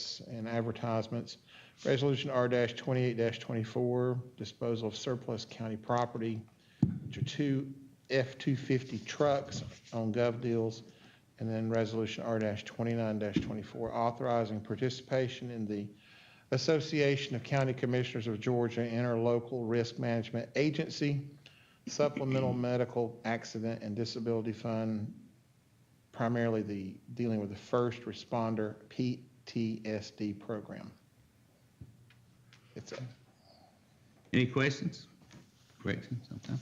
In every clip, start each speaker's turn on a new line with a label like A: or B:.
A: contracts and advertisements. Resolution R twenty-eight twenty-four, disposal of surplus county property, which are two F two fifty trucks on gov deals. And then resolution R twenty-nine twenty-four, authorizing participation in the Association of County Commissioners of Georgia Interlocal Risk Management Agency Supplemental Medical Accident and Disability Fund, primarily the, dealing with the first responder PTSD program. It's a
B: Any questions? Corrections sometime?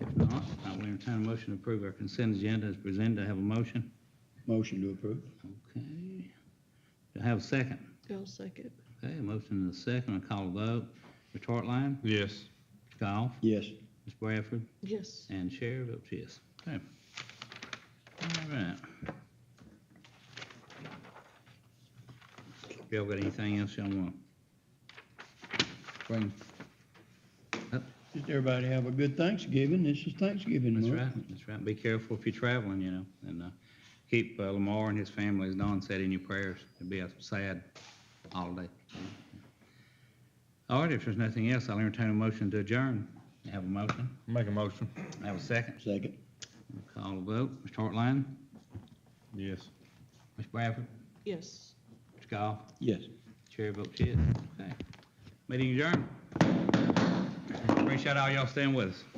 B: If not, I will entertain a motion to approve our consent agenda as presented. I have a motion.
C: Motion to approve.
B: Okay. Do I have a second?
D: I'll second.
B: Okay, a motion and a second. I call a vote. Mr. Hartline,
E: Yes.
B: Mr. Goff,
C: Yes.
B: Ms. Bradford,
D: Yes.
B: and Chair votes yes. Okay. All right. Y'all got anything else y'all want? Bring,
C: Just everybody have a good Thanksgiving. This is Thanksgiving
B: That's
C: month.
B: right, that's right. Be careful if you're traveling, you know, and uh, keep uh, Lamar and his family, as Don said, in your prayers. It'd be a sad holiday. All right, if there's nothing else, I'll entertain a motion to adjourn. I Have a motion,
E: Make a motion.
B: I have a second.
C: Second.
B: Call a vote. Mr. Hartline,
E: Yes.
B: Mr. Bradford,
D: Yes.
B: Mr. Goff,
C: Yes.
B: Chair votes yes. Okay. Meeting adjourned. Appreciate all y'all staying with us.